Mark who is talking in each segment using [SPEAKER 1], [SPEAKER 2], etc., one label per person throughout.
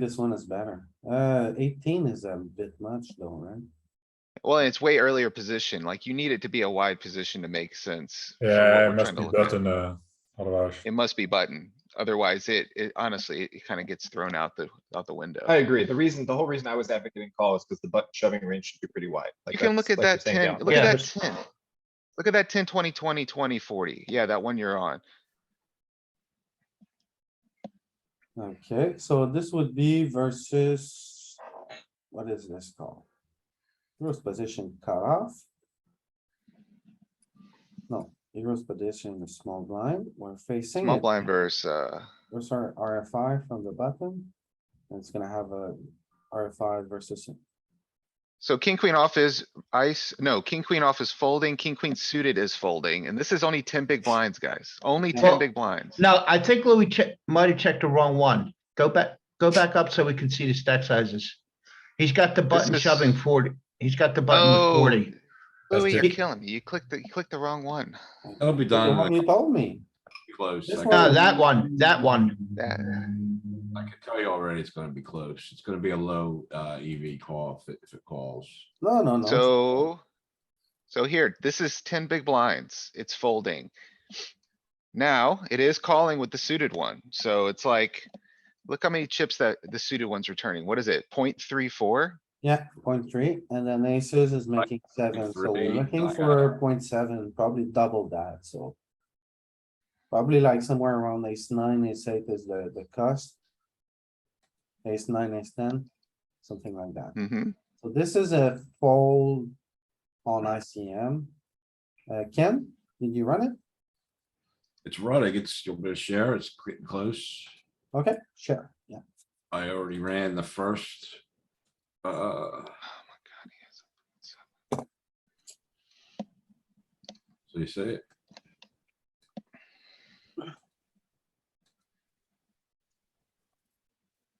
[SPEAKER 1] This one is better. Uh, eighteen is a bit much though, right?
[SPEAKER 2] Well, and it's way earlier position, like you need it to be a wide position to make sense. for what
[SPEAKER 3] Yeah,
[SPEAKER 2] we're
[SPEAKER 3] it must
[SPEAKER 2] trying to
[SPEAKER 3] be
[SPEAKER 2] look at.
[SPEAKER 3] button, uh, otherwise.
[SPEAKER 2] It must be button, otherwise it, it honestly, it kinda gets thrown out the, out the window.
[SPEAKER 4] I agree. The reason, the whole reason I was advocating call is because the button shoving range should be pretty wide.
[SPEAKER 2] You
[SPEAKER 4] Like,
[SPEAKER 2] can look at
[SPEAKER 4] that's- like you're
[SPEAKER 2] that
[SPEAKER 4] saying
[SPEAKER 2] ten,
[SPEAKER 4] down.
[SPEAKER 2] look
[SPEAKER 4] Yeah,
[SPEAKER 2] at that
[SPEAKER 4] there's-
[SPEAKER 2] ten. Look at that ten, twenty, twenty, twenty, forty. Yeah, that one you're on.
[SPEAKER 1] Okay, so this would be versus, what is this called? Hero's position cutoff. No, hero's position is small blind, we're facing
[SPEAKER 2] Small
[SPEAKER 1] it.
[SPEAKER 2] blind versus, uh,
[SPEAKER 1] Those are RFI from the button. And it's gonna have a RFI versus,
[SPEAKER 2] so king, queen off is ice, no, king, queen off is folding, king, queen suited is folding, and this is only ten big blinds, guys. Only ten
[SPEAKER 5] Well-
[SPEAKER 2] big blinds.
[SPEAKER 5] No, I think Louis checked, might have checked the wrong one. Go back, go back up so we can see the stack sizes. He's got the button
[SPEAKER 2] is-
[SPEAKER 5] shoving forty. He's got the button with
[SPEAKER 2] Oh.
[SPEAKER 5] forty.
[SPEAKER 3] That's
[SPEAKER 2] Louis, you're
[SPEAKER 3] different.
[SPEAKER 2] killing me. You clicked the, you clicked the wrong one.
[SPEAKER 6] It'll be
[SPEAKER 1] the
[SPEAKER 6] done
[SPEAKER 1] one
[SPEAKER 6] in
[SPEAKER 1] you
[SPEAKER 6] like
[SPEAKER 1] told me.
[SPEAKER 6] close.
[SPEAKER 1] This
[SPEAKER 6] I
[SPEAKER 1] one-
[SPEAKER 6] can-
[SPEAKER 5] No, that one, that one.
[SPEAKER 2] That,
[SPEAKER 6] I can tell you already, it's gonna be close. It's gonna be a low, uh, EV call if it, if it calls.
[SPEAKER 1] No, no, no.
[SPEAKER 2] So, so here, this is ten big blinds. It's folding. Now, it is calling with the suited one, so it's like, look how many chips that the suited one's returning. What is it? Point three four?
[SPEAKER 1] Yeah, point three, and then aces is making seven, so we're
[SPEAKER 6] three,
[SPEAKER 1] looking
[SPEAKER 6] like
[SPEAKER 1] for point seven, probably double that, so. Probably like somewhere around ace nine, ace eight is the, the cost. Ace nine, ace ten, something like that.
[SPEAKER 2] Mm-hmm.
[SPEAKER 1] So this is a fold on ICM. Uh, Ken, did you run it?
[SPEAKER 6] It's running, it's, you're gonna share, it's getting close.
[SPEAKER 1] Okay, sure, yeah.
[SPEAKER 6] I already ran the first. Uh,
[SPEAKER 2] Oh
[SPEAKER 6] so you see it?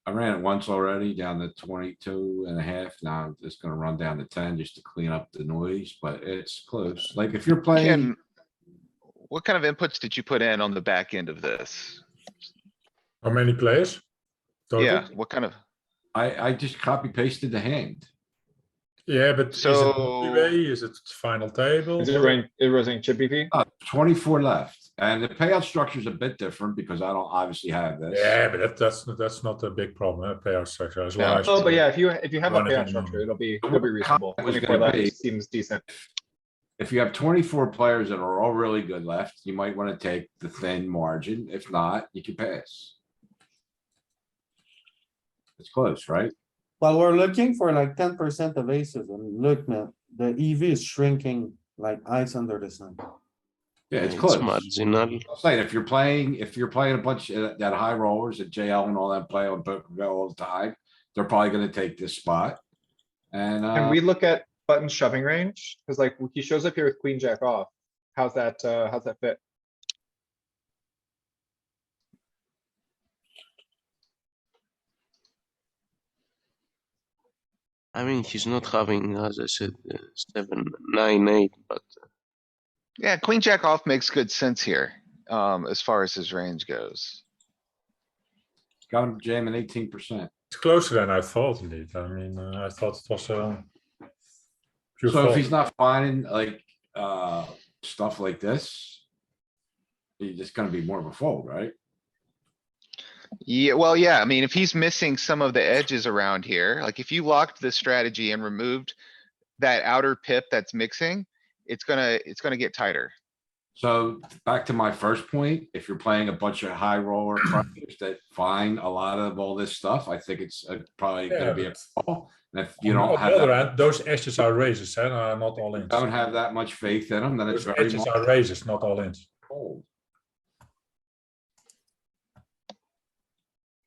[SPEAKER 6] I ran it once already down to 22 and a half. Now I'm just gonna run down to ten just to clean up the noise, but it's close. Like if you're playing,
[SPEAKER 2] Ken, what kind of inputs did you put in on the back end of this?
[SPEAKER 3] How many players? Total?
[SPEAKER 2] Yeah, what kind of,
[SPEAKER 6] I, I just copy pasted the hand.
[SPEAKER 3] Yeah, but is it
[SPEAKER 2] So-
[SPEAKER 3] three-way? Is it final table?
[SPEAKER 4] Is it running, it was running chip EV?
[SPEAKER 6] Uh, twenty-four left, and the payout structure is a bit different because I don't obviously have this.
[SPEAKER 3] Yeah, but that, that's, that's not a big problem, eh, player structure as well.
[SPEAKER 2] No.
[SPEAKER 3] as-
[SPEAKER 4] Oh, but yeah, if you, if you have a
[SPEAKER 3] Running
[SPEAKER 4] payout
[SPEAKER 3] in
[SPEAKER 4] structure,
[SPEAKER 3] normal.
[SPEAKER 4] it'll be, it'll be reasonable.
[SPEAKER 6] was
[SPEAKER 4] Twenty-four
[SPEAKER 6] gonna be-
[SPEAKER 4] left seems decent.
[SPEAKER 6] If you have twenty-four players that are all really good left, you might wanna take the thin margin. If not, you can pass. It's close, right?
[SPEAKER 1] Well, we're looking for like ten percent of aces and look, man, the EV is shrinking like ice under the sun.
[SPEAKER 6] Yeah, it's close.
[SPEAKER 7] marginal.
[SPEAKER 6] I'm saying if you're playing, if you're playing a bunch of that high rollers at JL and all that play on poker go all the time, they're probably gonna take this spot. And, uh.
[SPEAKER 4] Can we look at button shoving range? Cause like he shows up here with queen jack off. How's that, uh, how's that fit?
[SPEAKER 7] I mean, he's not having, as I said, uh, seven, nine, eight, but
[SPEAKER 2] yeah, queen jack off makes good sense here, um, as far as his range goes.
[SPEAKER 6] Got him jamming eighteen percent.
[SPEAKER 3] It's closer than I thought indeed. I mean, uh, I thought it was, uh. pure
[SPEAKER 6] So if
[SPEAKER 3] fault.
[SPEAKER 6] he's not finding like, uh, stuff like this. He's just gonna be more of a fold, right?
[SPEAKER 2] Yeah, well, yeah, I mean, if he's missing some of the edges around here, like if you locked the strategy and removed that outer pip that's mixing, it's gonna, it's gonna get tighter.
[SPEAKER 6] So back to my first point, if you're playing a bunch of high roller crushers that find a lot of all this stuff, I think it's uh, probably
[SPEAKER 3] Yeah,
[SPEAKER 6] gonna be a call. And if you
[SPEAKER 3] On
[SPEAKER 6] don't
[SPEAKER 3] the
[SPEAKER 6] have,
[SPEAKER 3] other
[SPEAKER 6] that-
[SPEAKER 3] hand, Those edges are raises and are not all in.
[SPEAKER 6] don't have that much faith in them, then it's
[SPEAKER 3] Those
[SPEAKER 6] very
[SPEAKER 3] edges
[SPEAKER 6] much
[SPEAKER 3] are raises, not all in.
[SPEAKER 6] fold.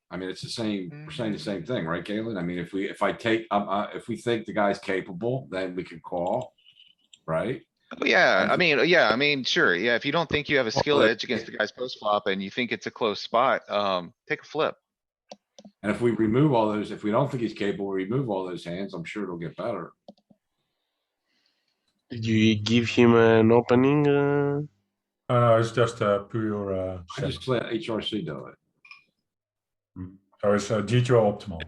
[SPEAKER 6] I mean, it's the same, we're saying the same thing, right, Galen? I mean, if we, if I take, um, uh, if we think the guy's capable, then we can call. Right?
[SPEAKER 2] Oh, yeah, I
[SPEAKER 6] Mhm.
[SPEAKER 2] mean, yeah, I mean, sure, yeah, if you don't think you have a
[SPEAKER 6] Well,
[SPEAKER 2] skill
[SPEAKER 6] but-
[SPEAKER 2] edge against the guy's post flop and you think it's a close spot, um, take a flip.
[SPEAKER 6] And if we remove all those, if we don't think he's capable, we remove all those hands, I'm sure it'll get better.
[SPEAKER 7] did you give him an opening? Uh,
[SPEAKER 3] Uh, it's just a pure, uh.
[SPEAKER 6] I
[SPEAKER 3] set.
[SPEAKER 6] just let HRC do it.
[SPEAKER 3] So it's uh, GTO optimal.